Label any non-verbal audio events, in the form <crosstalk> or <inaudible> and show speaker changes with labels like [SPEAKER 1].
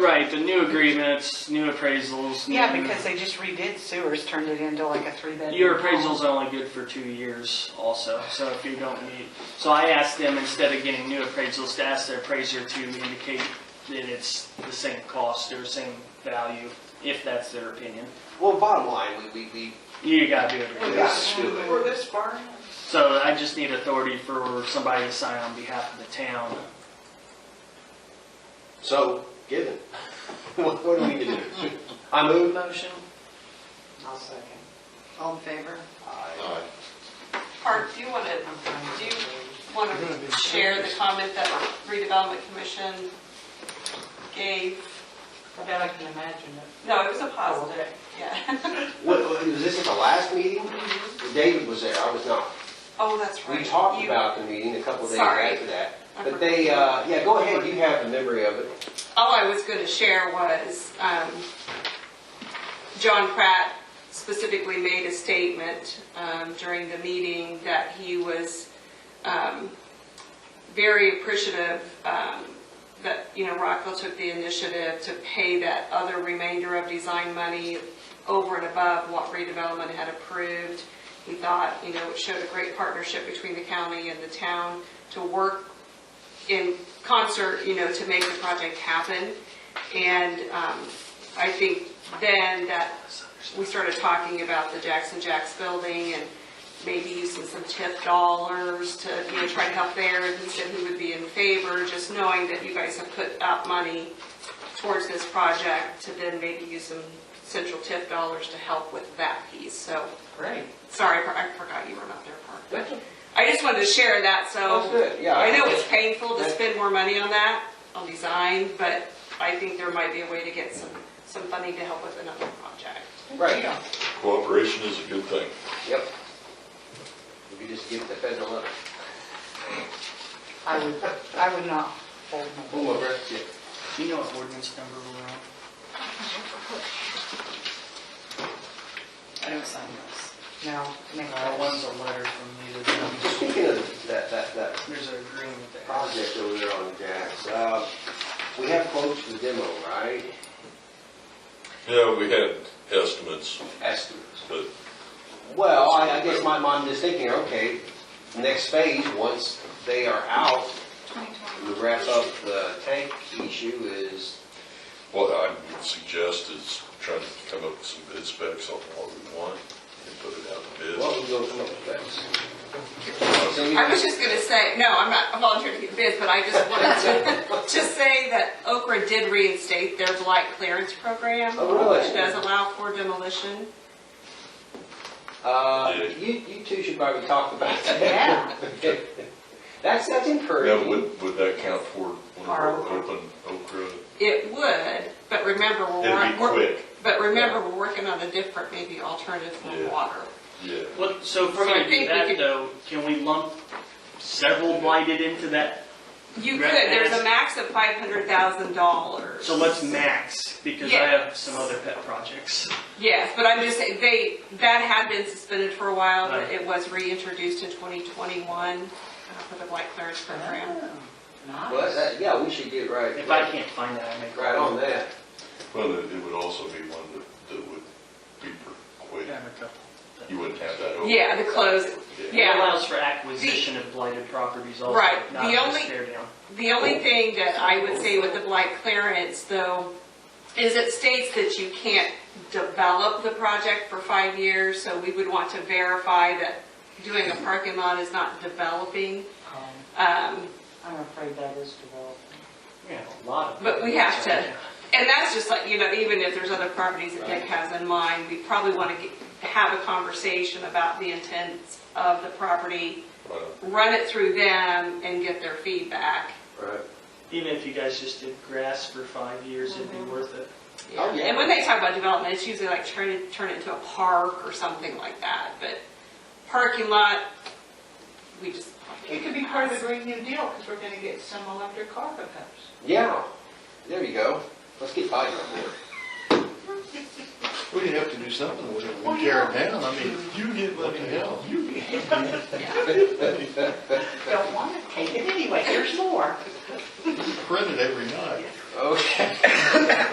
[SPEAKER 1] Right, the new agreements, new appraisals.
[SPEAKER 2] Yeah,
[SPEAKER 1] new-
[SPEAKER 2] because they just redid sewers, turned it into like a three-bedroom.
[SPEAKER 1] Your
[SPEAKER 2] home.
[SPEAKER 1] appraisal's only good for two years also, so if you don't meet, so I asked them, instead of getting new appraisals, to ask their appraiser to indicate that it's the same cost or same value, if that's their opinion.
[SPEAKER 3] Well, bottom line, we, we, we
[SPEAKER 1] You gotta do it.
[SPEAKER 3] we gotta do it.
[SPEAKER 4] Or this barn,
[SPEAKER 1] So I just need authority for somebody to sign on behalf of the town.
[SPEAKER 3] So, given, <laughs> what, what do we need to do? I move. Motion.
[SPEAKER 2] I'll second.
[SPEAKER 5] All in favor?
[SPEAKER 3] Aye.
[SPEAKER 4] Art, do you want to, do you want to share the comment that redevelopment commission gave?
[SPEAKER 2] I bet I can imagine it.
[SPEAKER 4] No, it was a positive,
[SPEAKER 2] <laughs>
[SPEAKER 4] yeah.
[SPEAKER 3] What, what- was this at the last meeting? David was there, I was not.
[SPEAKER 4] Oh, that's Mm-hmm. right.
[SPEAKER 3] We talked
[SPEAKER 4] You-
[SPEAKER 3] about the meeting a couple days
[SPEAKER 4] Sorry.
[SPEAKER 3] after that.
[SPEAKER 4] I
[SPEAKER 3] But they, uh, yeah, go ahead, you have the memory of it.
[SPEAKER 4] all I was going to share was, um, John Pratt specifically made a statement um, during the meeting that he was um, very appreciative um, that, you know, Rockville took the initiative to pay that other remainder of design money over and above what redevelopment had approved. He thought, you know, it showed a great partnership between the county and the town to work in concert, you know, to make the project happen. And um, I think then that we started talking about the Jackson Jacks building and maybe using some TIF dollars to, you know, try to help there. And he said he would be in favor, just knowing that you guys have put out money towards this project to then maybe use some central TIF dollars to help with that piece. So,
[SPEAKER 2] Great.
[SPEAKER 4] sorry, I forgot you were not there, Park. I just wanted to share that, so.
[SPEAKER 3] That's good, yeah.
[SPEAKER 4] I know it's painful to spend more money on that, on design, but I think there might be a way to get some, some funding to help with another project.
[SPEAKER 3] Right,
[SPEAKER 6] Cooperation is a good thing.
[SPEAKER 3] yep. If you just give the federal letter.
[SPEAKER 2] I would, I would not hold my.
[SPEAKER 3] Boom, over. Yeah.
[SPEAKER 1] Do you know what ordinance number we're on?
[SPEAKER 5] I don't sign those.
[SPEAKER 2] No, make
[SPEAKER 1] Uh, one's
[SPEAKER 2] those.
[SPEAKER 1] a letter from me to them.
[SPEAKER 3] Speaking of that, that, that
[SPEAKER 1] There's an agreement there.
[SPEAKER 3] project over there on Jack's. Uh, we have quotes for demo, right?
[SPEAKER 6] Yeah, we had estimates,
[SPEAKER 3] Estimates.
[SPEAKER 6] but
[SPEAKER 3] Well, I, I guess my, my mistaking, okay, next phase, once they are out, we wrap up the tank issue is,
[SPEAKER 6] what I would suggest is trying to come up with some bid specs on what we want and put it out to bid.
[SPEAKER 3] what we go come up with next? So you-
[SPEAKER 4] I was just gonna say, no, I'm not volunteering to get bids, but I just
[SPEAKER 3] <laughs>
[SPEAKER 4] wanted to, to say that Okra did reinstate their blight clearance program,
[SPEAKER 3] Oh, really?
[SPEAKER 4] which does allow for demolition.
[SPEAKER 3] Uh, you, you two should probably talk about that.
[SPEAKER 2] Yeah.
[SPEAKER 3] <laughs> That's, that's
[SPEAKER 6] Now,
[SPEAKER 3] encouraging.
[SPEAKER 6] would, would that count for one of our open okra?
[SPEAKER 4] It would, but remember, we're.
[SPEAKER 6] It'd be
[SPEAKER 4] we're-
[SPEAKER 6] quick,
[SPEAKER 4] But remember, we're working on a different, maybe alternative for
[SPEAKER 6] Yeah.
[SPEAKER 4] water.
[SPEAKER 6] yeah.
[SPEAKER 1] What, so if we're
[SPEAKER 4] So I
[SPEAKER 1] gonna do
[SPEAKER 4] think we
[SPEAKER 1] that
[SPEAKER 4] could-
[SPEAKER 1] though, can we lump several blighted into that?
[SPEAKER 4] You could,
[SPEAKER 1] Right.
[SPEAKER 4] there's a max of five hundred thousand dollars.
[SPEAKER 1] So let's max, because I have some other pet projects.
[SPEAKER 4] Yes, but I'm just saying, they, that had been suspended for a while, but
[SPEAKER 1] Right.
[SPEAKER 4] it was reintroduced in twenty twenty-one uh, for the blight clearance program.
[SPEAKER 2] Oh,
[SPEAKER 3] Well,
[SPEAKER 2] Nice.
[SPEAKER 3] that, yeah, we should get right.
[SPEAKER 1] If I can't find that, I make. a
[SPEAKER 3] Right on that.
[SPEAKER 6] Well, it it would also be one that, that would be for
[SPEAKER 1] I
[SPEAKER 6] quick.
[SPEAKER 1] have a couple.
[SPEAKER 6] You wouldn't have that open.
[SPEAKER 4] Yeah, the close,
[SPEAKER 1] It
[SPEAKER 4] yeah.
[SPEAKER 1] allows for acquisition of blighted properties also,
[SPEAKER 4] Right,
[SPEAKER 1] not
[SPEAKER 4] the
[SPEAKER 1] just
[SPEAKER 4] only-
[SPEAKER 1] tear down.
[SPEAKER 4] The only thing that I would say with the blight clearance though, is it states that you can't develop the project for five years, so we would want to verify that doing a parking lot is not developing.
[SPEAKER 2] Um,
[SPEAKER 4] Um,
[SPEAKER 2] I'm afraid that is developing.
[SPEAKER 1] We have a lot of.
[SPEAKER 4] But we have to-
[SPEAKER 1] Yeah.
[SPEAKER 4] And that's just like, you know, even if there's other properties that Nick has in mind, we probably want to have a conversation about the intents of the property,
[SPEAKER 6] Right.
[SPEAKER 4] run it through them and get their feedback.
[SPEAKER 3] Right.
[SPEAKER 1] Even if you guys just did grass for five years, it'd be worth it.
[SPEAKER 3] Oh, yeah.
[SPEAKER 4] And when they talk about development, it's usually like turn it, turn it into a park or something like that, but parking lot, we just.
[SPEAKER 2] It could be part of the Green New Deal, because we're gonna get some electric car pickups.
[SPEAKER 3] Yeah, there you go. Let's get Biden on board.
[SPEAKER 7] We'd have to do something with it, we tear it down, I mean,
[SPEAKER 6] You get
[SPEAKER 7] what the hell?
[SPEAKER 2] Don't wanna take it anyway, there's more.
[SPEAKER 6] Printed every night.
[SPEAKER 3] Okay.